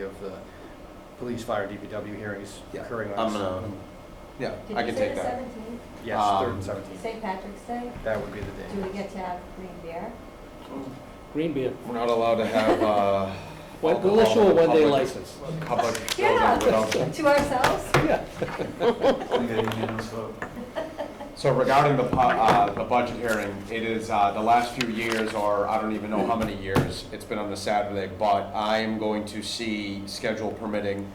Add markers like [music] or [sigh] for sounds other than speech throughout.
of the police, fire, DPW hearings Yeah, occurring on. I'm gonna, yeah, Did I you can say take the that. seventeenth? Yes, third and um, seventeenth. St. Patrick's Day? That would be the day. Do we get to have green beer? Green beer. We're not allowed to have, uh. We'll we'll issue a alcohol in one-day public- license. Public. Yeah. building To ourselves? Yeah. without- So regarding the, pu- uh, the budget hearing, it is, uh, the last few years, or I don't even know how many years, it's been on the Saturday, but I am going to see, schedule permitting,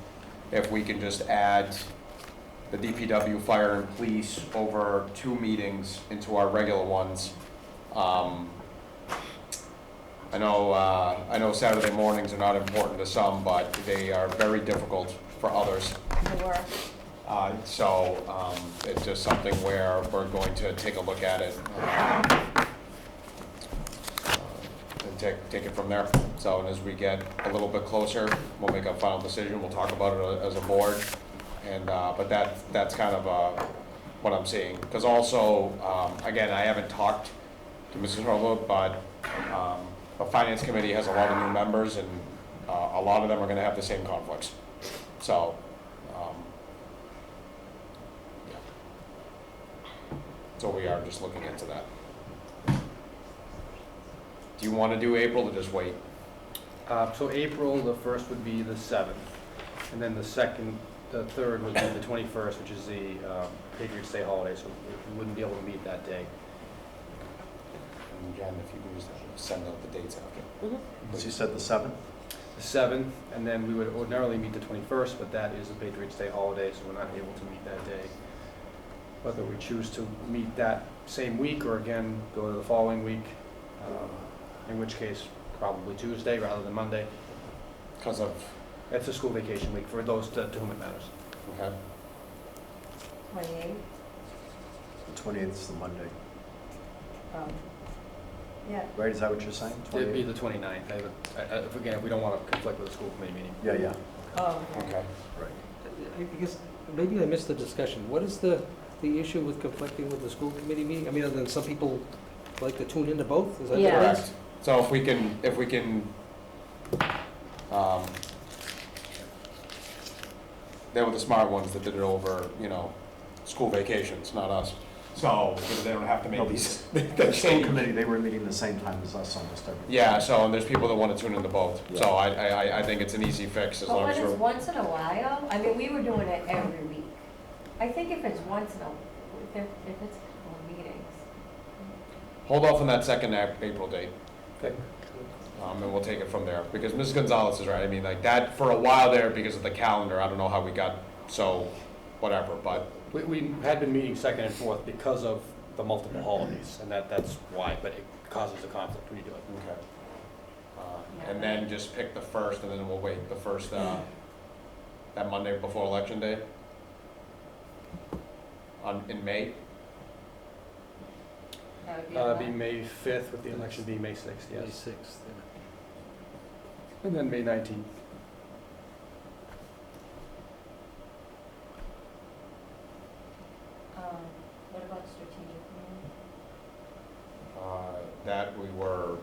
if we can just add the DPW, fire and police over two meetings into our regular ones. Um, I know, uh, I know Saturday mornings are not important to some, but they are very difficult for others. The work. Uh, So um, it's just something where we're going to take a look at it uh, and take, take it from there. So and as we get a little bit closer, we'll make a final decision, we'll talk about it uh, as a board. And, uh, but that, that's kind of uh, what I'm seeing. Because also, um, again, I haven't talked to Mrs. Harlow, but um, the finance committee has a lot of new members and uh, a lot of them are going to have the same conflicts. So um, So we are just looking into that. Do you want to do April or just wait? Uh, so April, the first would be the seventh, and then the second, the third would be the twenty-first, which is the, um, Patriots' Day holiday, so we- we wouldn't be able to meet that day. And Jen, if you can just send out the dates after. So you said the seventh? The seventh, and then we would ordinarily meet the twenty-first, but that is the Patriots' Day holiday, so we're not able to meet that day. Whether we choose to meet that same week or again, go to the following week, um, in which case probably Tuesday rather than Monday. Because of, It's a school vacation week for those to to whom it matters. okay, Twenty-eighth, The twenty-eighth is the Monday, um, yeah, right? Is that what you're saying? It'd be the 28th? 29th. I have a- I- I- Again, we don't want to conflict with the school committee meeting. Yeah, yeah, oh, okay. okay. right. I guess, maybe I missed the discussion. What is the, the issue with conflicting with the school committee meeting? I mean, other than some people like to tune into both, is that the Yeah. case? Correct. So if we can, if we can, um, they were the smart ones that did it over, you know, school vacations, not us. So they don't have to No, make [laughs] but these, The the school change. committee, they were meeting the same time as us almost every. Yeah, so, and there's people that want to tune into both. So Yeah. I, I, I- I think it's an easy fix as But long when as it's we're. once in a while, I mean, we were doing it every week. I think if it's once in a, if there- if it's a couple of meetings, Hold off on that second Ap- April date, Okay. um, and we'll take it from there, because Ms. Gonzalez is right, I mean, like, that, for a while there, because of the calendar, I don't know how we got, so, whatever, but, We- We had been meeting second and fourth because of the multiple holidays, and that that's why, but it causes a conflict when you do it. okay. Uh, And then just pick the first, and then we'll wait, the first, uh, that Monday before Election Day? On, in May? that would be. Uh, a it'd be lot. May 5th, with the election being May 6th, May yes. 6th. And then May 19th. Um, what about strategic planning? Uh, That we were,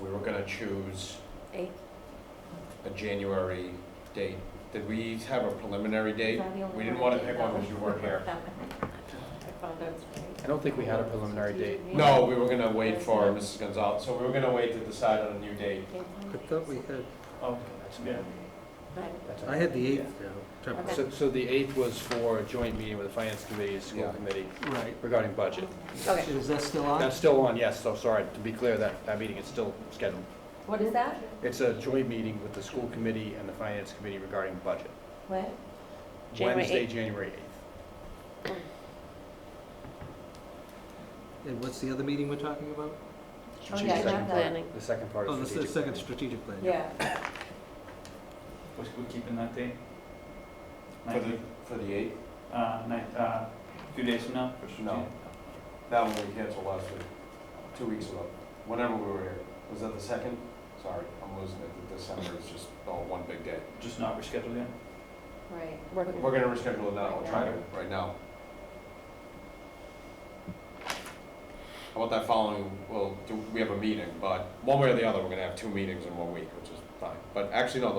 we were gonna choose Eight, a January date. Did we have a preliminary date? Is that the only We didn't one wanna I pick didn't one know? because you [laughs] weren't here. that one. I found out it's right. I don't think we had a preliminary date. No, we were gonna wait for Mrs. Gonzalez, so we were gonna wait to decide on a new date. I thought we had, Oh, that's Yeah. That's I had the okay. 8th now. Okay. So so the 8th was for a joint meeting with the finance committee, and school Yeah. committee Right. regarding budget. Okay, Is that still on? That's still on, yes, so sorry, to be clear, that that meeting is still scheduled. what is that? It's a joint meeting with the school committee and the finance committee regarding budget. What? January Wednesday, 8th. January 8th. And what's the other meeting we're talking about? Oh, yeah, I Second have part- that. Planning. The second part Oh, of that's the strategic. second planning. strategic plan. Yeah, We're still keeping that date? For the, for the eighth? Uh, night, uh, two days from now? No. That one we canceled last week, two weeks ago, whenever we were here. Was that the second? Sorry, I'm losing it, December is just all one big day. Just not rescheduled yet? right. Working. We're gonna reschedule it now, I'll try to, right now. How about that following, well, do, we have a meeting, but one way or the other, we're gonna have two meetings in one week, which is fine. But actually, no, the